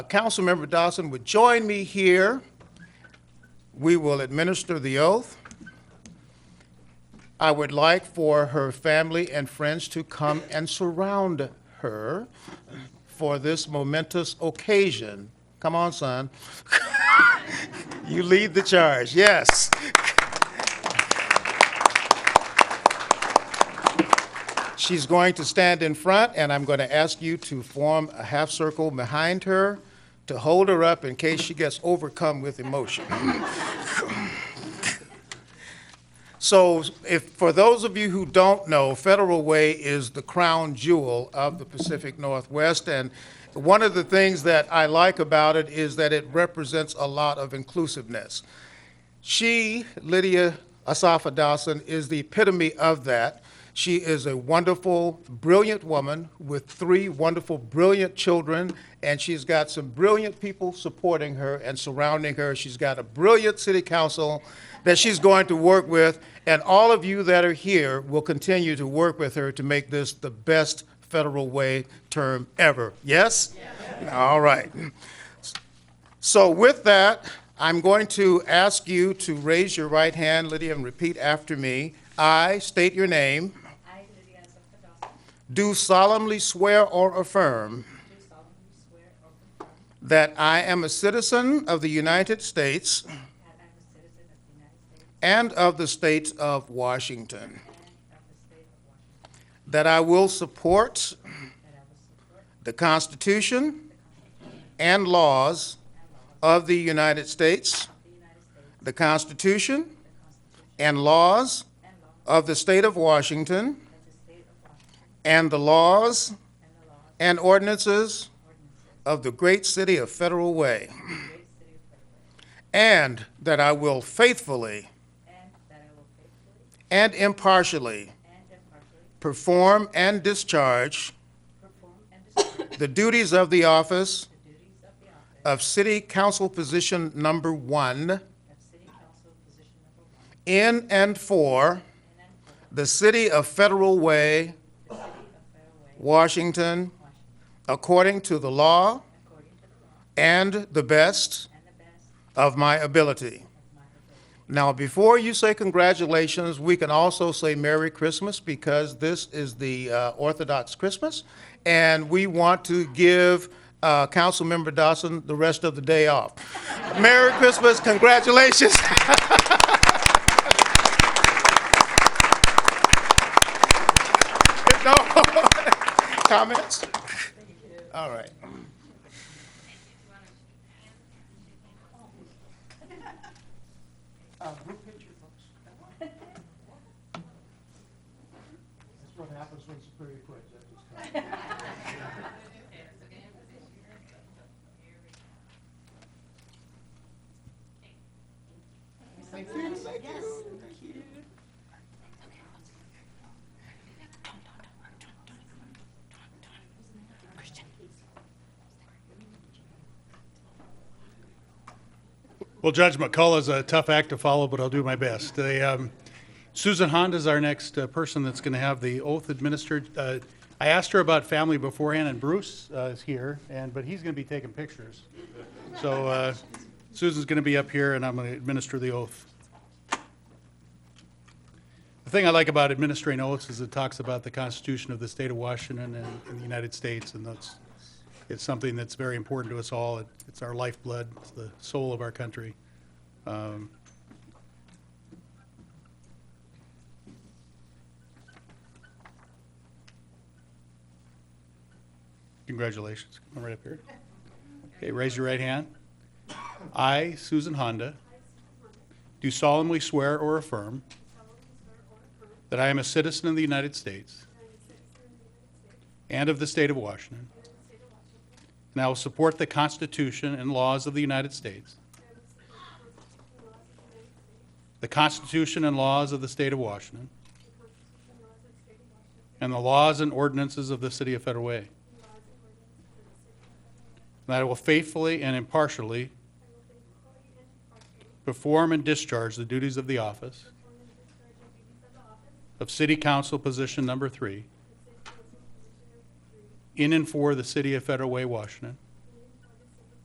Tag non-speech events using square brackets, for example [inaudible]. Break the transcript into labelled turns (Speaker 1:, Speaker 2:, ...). Speaker 1: Councilmember Dawson would join me here, we will administer the oath. I would like for her family and friends to come and surround her for this momentous occasion. Come on, son. [laughs] You lead the charge, yes. She's going to stand in front, and I'm going to ask you to form a half circle behind her to hold her up in case she gets overcome with emotion. [laughs] So if, for those of you who don't know, Federal Way is the crown jewel of the Pacific Northwest. And one of the things that I like about it is that it represents a lot of inclusiveness. She, Lydia Asafa Dawson, is the epitome of that. She is a wonderful, brilliant woman with three wonderful, brilliant children, and she's got some brilliant people supporting her and surrounding her. She's got a brilliant city council that she's going to work with, and all of you that are here will continue to work with her to make this the best federal way term ever. Yes? All right. So with that, I'm going to ask you to raise your right hand, Lydia, and repeat after me. I state your name,
Speaker 2: I, Lydia Asaf Dawson,
Speaker 1: do solemnly swear or affirm
Speaker 2: do solemnly swear or affirm
Speaker 1: that I am a citizen of the United States
Speaker 2: that I am a citizen of the United States
Speaker 1: and of the state of Washington,
Speaker 2: and of the state of Washington,
Speaker 1: that I will support
Speaker 2: that I will support
Speaker 1: the Constitution and laws of the United States,
Speaker 2: the United States,
Speaker 1: the Constitution
Speaker 2: the Constitution
Speaker 1: and laws
Speaker 2: and laws
Speaker 1: of the state of Washington,
Speaker 2: of the state of Washington,
Speaker 1: and the laws
Speaker 2: and the laws
Speaker 1: and ordinances
Speaker 2: and ordinances
Speaker 1: of the great city of Federal Way,
Speaker 2: of the great city of Federal,
Speaker 1: and that I will faithfully
Speaker 2: and that I will faithfully
Speaker 1: and impartially
Speaker 2: and impartially
Speaker 1: perform and discharge
Speaker 2: perform and discharge
Speaker 1: the duties of the
Speaker 2: the duties
Speaker 1: office
Speaker 2: of the office
Speaker 1: of City Council Position Number One
Speaker 2: of city council position number one
Speaker 1: in and for
Speaker 2: in and for
Speaker 1: the city of Federal Way,
Speaker 2: the city of Federal Way,
Speaker 1: Washington,
Speaker 2: Washington,
Speaker 1: according to the
Speaker 2: according
Speaker 1: law
Speaker 2: to the law
Speaker 1: and the best
Speaker 2: and the best
Speaker 1: of my ability.
Speaker 2: of my ability.
Speaker 1: Now, before you say congratulations, we can also say Merry Christmas because this is the uh, Orthodox Christmas, and we want to give uh, Councilmember Dawson the rest of the day off. [laughs] Merry Christmas, congratulations. [laughs] No [laughs] Comments? All right. group picture, folks. That's what happens when Superior quits.
Speaker 3: Well, Judge McCullough is a tough act to follow, but I'll do my best. They, um, Susan Honda is our next uh, person that's going to have the oath administered. Uh, I asked her about family beforehand, and Bruce uh, is here, and but he's going to be taking pictures. So uh, Susan's going to be up here, and I'm going to administer the oath. The thing I like about administering oaths is it talks about the Constitution of the State of Washington and, and the United States, and that's it's something that's very important to us all. It, it's our lifeblood, it's the soul of our country. Um, congratulations. Come right up here. Okay, raise your right hand. I, Susan Honda, do solemnly swear or affirm that I am a citizen of the United States and of the state of Washington. And I will support the Constitution and laws of the United States. The Constitution and laws of the state of Washington. And the laws and ordinances of the city of Federal Way. And I will faithfully and impartially perform and discharge the duties of the office of City Council Position Number Three in and for the city of Federal Way, Washington.